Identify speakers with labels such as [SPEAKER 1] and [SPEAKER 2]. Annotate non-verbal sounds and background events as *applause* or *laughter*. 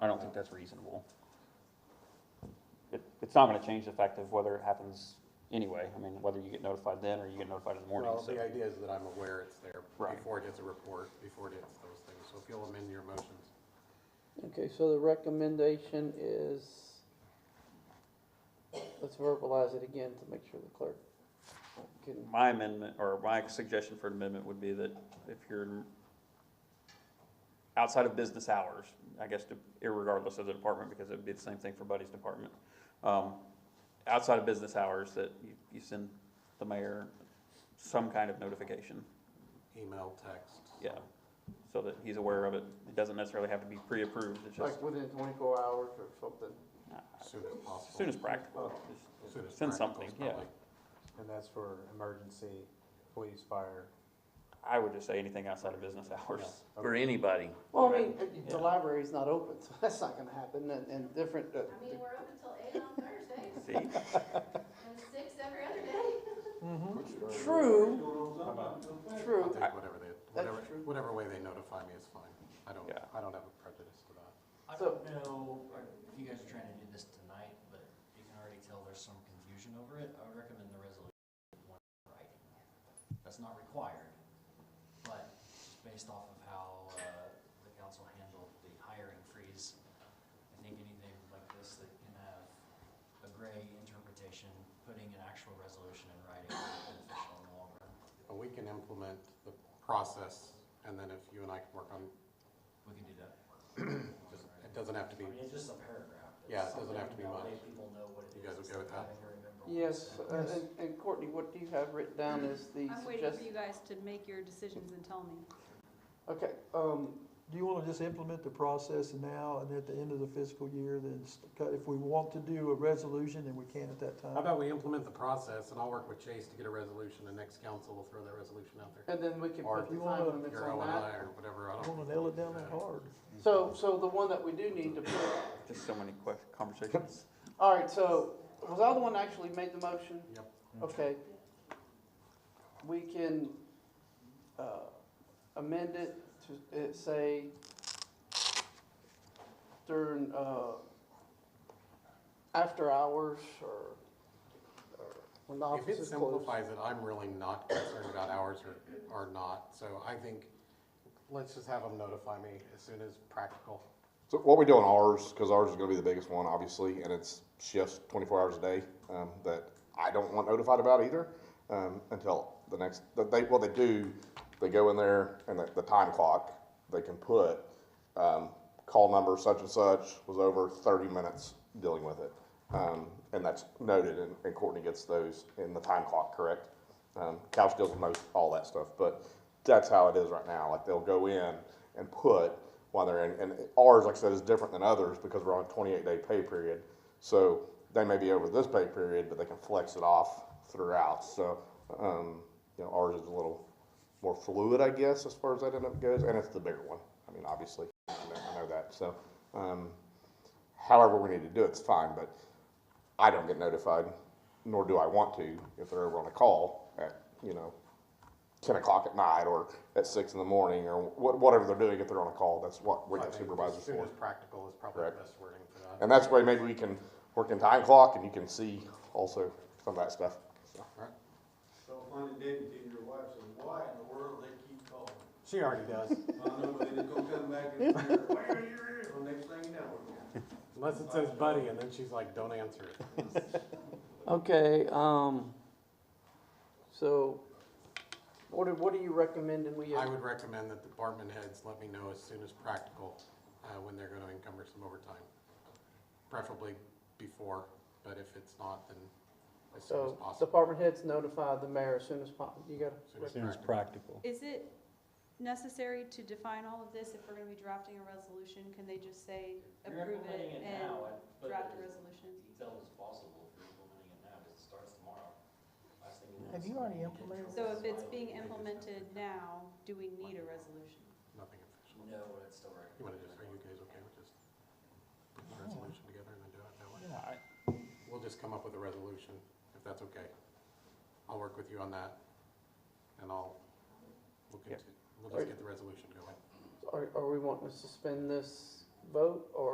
[SPEAKER 1] that's reasonable. It, it's not gonna change the fact of whether it happens anyway, I mean, whether you get notified then or you get notified in the morning,
[SPEAKER 2] Well,
[SPEAKER 1] so.
[SPEAKER 2] the idea is that I'm aware it's there
[SPEAKER 1] Right.
[SPEAKER 2] before it hits a report, before it hits those things. So if you'll amend your motions.
[SPEAKER 3] Okay, so the recommendation is, let's verbalize it again to make sure the clerk can,
[SPEAKER 1] My amendment, or my suggestion for amendment would be that if you're outside of business hours, I guess to- irregardless of the department, because it'd be the same thing for Buddy's department. Um, outside of business hours, that you, you send the mayor some kind of notification,
[SPEAKER 2] Email, text.
[SPEAKER 1] yeah. So that he's aware of it. It doesn't necessarily have to be pre-approved, it's just
[SPEAKER 3] like, within twenty-four hours or something.
[SPEAKER 2] As soon as
[SPEAKER 1] as soon
[SPEAKER 2] possible.
[SPEAKER 1] as practical.
[SPEAKER 2] As soon as
[SPEAKER 1] Send
[SPEAKER 2] practical
[SPEAKER 1] something,
[SPEAKER 2] is
[SPEAKER 1] yeah.
[SPEAKER 2] probably-
[SPEAKER 4] And that's for emergency, police, fire.
[SPEAKER 1] I would just say anything outside of business hours.
[SPEAKER 5] for anybody.
[SPEAKER 3] Well, I mean, uh,
[SPEAKER 1] Yeah.
[SPEAKER 3] the library's not open, *laughs* so that's not gonna happen, and, and different, uh,
[SPEAKER 6] I mean, we're open till eight on Thursdays
[SPEAKER 1] See?
[SPEAKER 6] and six every other day.
[SPEAKER 3] true,
[SPEAKER 2] I'll
[SPEAKER 3] true.
[SPEAKER 2] take whatever they, whatever,
[SPEAKER 3] true.
[SPEAKER 2] whatever way they notify me is fine. I don't,
[SPEAKER 1] Yeah.
[SPEAKER 2] I don't have a prejudice to that.
[SPEAKER 7] I
[SPEAKER 3] So-
[SPEAKER 7] don't know if you guys are trying to do this tonight, but you can already tell there's some confusion over it. I would recommend the resolution in one writing. That's not required, but just based off of how uh, the council handled the hiring freeze, I think anything like this that can have a gray interpretation, putting an actual resolution in writing is beneficial in the long run.
[SPEAKER 2] But we can implement the process and then if you and I can work on,
[SPEAKER 7] We can do that.
[SPEAKER 4] *clears throat*
[SPEAKER 2] just, it doesn't have to be,
[SPEAKER 7] I mean, it's just a paragraph. but
[SPEAKER 2] Yeah, it doesn't have to be
[SPEAKER 7] something that way
[SPEAKER 2] much.
[SPEAKER 7] People know what it
[SPEAKER 2] You guys
[SPEAKER 7] is.
[SPEAKER 2] okay
[SPEAKER 7] instead
[SPEAKER 2] with
[SPEAKER 7] of
[SPEAKER 2] that?
[SPEAKER 7] having to remember all this
[SPEAKER 3] Yes,
[SPEAKER 7] stuff.
[SPEAKER 3] uh, and, and Courtney, what do you have written down is the
[SPEAKER 6] I'm waiting for
[SPEAKER 3] suggested,
[SPEAKER 6] you guys to make your decisions and tell me.
[SPEAKER 3] okay, um,
[SPEAKER 8] Do you wanna just implement the process now and at the end of the fiscal year, then st- cut- if we want to do a resolution, then we can at that
[SPEAKER 2] how
[SPEAKER 8] time?
[SPEAKER 2] about we implement the process and I'll work with Chase to get a resolution and next council will throw that resolution out there.
[SPEAKER 3] and then we can
[SPEAKER 2] Or
[SPEAKER 3] put
[SPEAKER 2] if
[SPEAKER 3] the
[SPEAKER 2] you
[SPEAKER 3] time
[SPEAKER 8] wanna-
[SPEAKER 3] limits
[SPEAKER 2] Your O
[SPEAKER 3] on
[SPEAKER 2] and I
[SPEAKER 3] that.
[SPEAKER 2] or whatever, I
[SPEAKER 8] I
[SPEAKER 2] don't.
[SPEAKER 8] wanna nail it down that hard.
[SPEAKER 3] So, so the one that we do need to put
[SPEAKER 1] There's so many que- conversations.
[SPEAKER 3] All right, so was I the one that actually made the motion?
[SPEAKER 2] Yep.
[SPEAKER 3] Okay. We can uh, amend it to, it say during, uh, after hours or, or when the
[SPEAKER 2] If
[SPEAKER 3] office
[SPEAKER 2] it
[SPEAKER 3] is closed.
[SPEAKER 2] simplifies it, I'm really not concerned about hours or, or not, so I think, let's just have them notify me as soon as practical.
[SPEAKER 9] So what we do on ours, because ours is going to be the biggest one, obviously, and it's shifts 24 hours a day um, that I don't want notified about either um, until the next. that They what they do, they go in there and the, the time clock they can put um, call number such and such was over 30 minutes dealing with it, um, and that's noted, and, and Courtney gets those in the time clock, correct? Um, Couch deals with most all that stuff, but that's how it is right now. Like they'll go in and put while they're in, and ours, like I said, is different than others because we're on a 28 day pay period. So they may be over this pay period, but they can flex it off throughout. So, um, you know, ours is a little more fluid, I guess, as far as that end up goes, and it's the bigger one. I mean, obviously, I know, I know that. So, um, however we need to do it's fine, but I don't get notified, nor do I want to, if they're over on a call at, you know, ten o'clock at night or at six in the morning or wha- whatever they're doing if they're on a call. That's what we
[SPEAKER 2] I
[SPEAKER 9] got
[SPEAKER 2] think
[SPEAKER 9] supervisors
[SPEAKER 2] As soon
[SPEAKER 9] for.
[SPEAKER 2] as practical is probably the
[SPEAKER 9] Correct.
[SPEAKER 2] best wording for that.
[SPEAKER 9] And that's where maybe we can work in time clock and you can see also some of that stuff. So,
[SPEAKER 2] Alright.
[SPEAKER 10] So funny, Deputy, your wife said, why in the world they keep calling?
[SPEAKER 2] She already
[SPEAKER 9] *laughs*
[SPEAKER 2] does,
[SPEAKER 10] I know, but then it's gonna come back and, where are you? Well, next thing you know, we're gonna-
[SPEAKER 2] unless it says buddy, and then she's like, don't answer it.
[SPEAKER 3] Okay, um, so what are, what are you recommending we? uh,
[SPEAKER 2] I would recommend that department heads let me know as soon as practical, uh, when they're gonna encumber some overtime. Preferably before, but if it's not, then as soon as
[SPEAKER 3] So
[SPEAKER 2] possible.
[SPEAKER 3] department heads notify the mayor as soon as possible. You got
[SPEAKER 2] As soon as
[SPEAKER 4] practical.
[SPEAKER 6] Is it necessary to define all of this if we're gonna be drafting a resolution? Can they just say
[SPEAKER 7] You're
[SPEAKER 6] approve
[SPEAKER 7] implementing
[SPEAKER 6] it and
[SPEAKER 7] now, I'd put
[SPEAKER 6] draft a
[SPEAKER 7] it as
[SPEAKER 6] resolution?
[SPEAKER 7] Detailed as possible if you're implementing it now, because it starts tomorrow. Last thing know
[SPEAKER 8] Have
[SPEAKER 7] is
[SPEAKER 8] you already
[SPEAKER 7] get
[SPEAKER 8] implemented
[SPEAKER 7] your
[SPEAKER 6] So if it's being
[SPEAKER 7] final-
[SPEAKER 6] implemented now, do we need a resolution?
[SPEAKER 2] Nothing official.
[SPEAKER 7] No, but it's still recommended.
[SPEAKER 2] You wanna just, are you guys okay with just putting the resolution together and then do it that way?
[SPEAKER 1] I-
[SPEAKER 2] We'll just come up with a resolution, if that's okay. I'll work with you on that, and I'll, we'll
[SPEAKER 1] Yeah.
[SPEAKER 2] continue, we'll just get the resolution going.
[SPEAKER 3] Are, are we wanting to suspend this vote, or